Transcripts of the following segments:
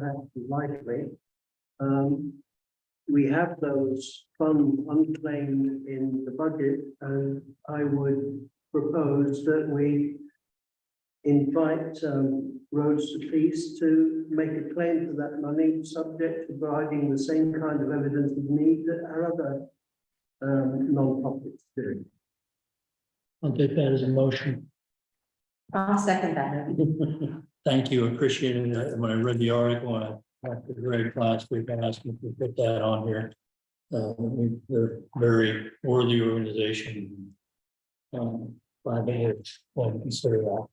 perhaps lightly. Um, we have those funds unclaimed in the budget, and I would propose that we invite, um, Roads to Peace to make a claim for that money, subject to providing the same kind of evidence of need that our other, um, non-profits do. I'll take that as a motion. I'll second that. Thank you, appreciate it. Uh, When I read the article, I talked to Greg last week, I asked him to put that on here. Uh, we- they're a very worthy organization. Um, by the way, well, consider that.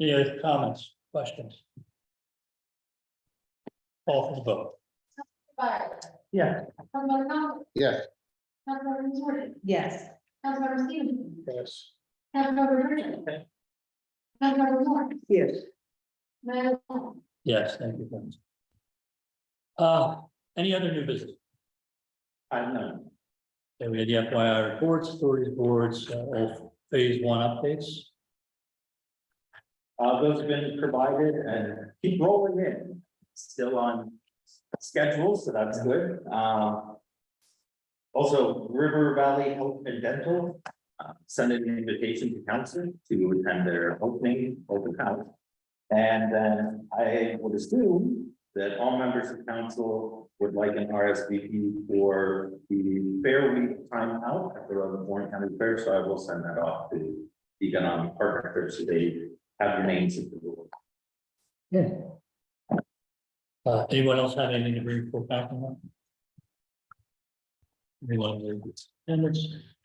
Any other comments, questions? Call for the vote. Byron. Yeah. Councilmember Conlon. Yes. Councilmember Jordan. Yes, Councilmember Stevenson. Yes. Councilmember Richard. Okay. Councilmember Moore. Yes, Mayor Long. Yes, thank you. friends. Uh, any other new business? I have none. Okay, we had the FYI reports, authorities boards, uh, all phase one updates. Uh, those have been provided and keep rolling in, still on schedule, so that's good, uh. Also, River Valley Health and Dental, uh, sent an invitation to council to attend their opening, open house. And then I would assume that all members of council would like an RSVP for the fair week time out at the Rutherford Warren County Fair, so I will send that off to the economic partner so they have your names at the board. Uh, anyone else have anything to bring for back on? Anyone in attendance?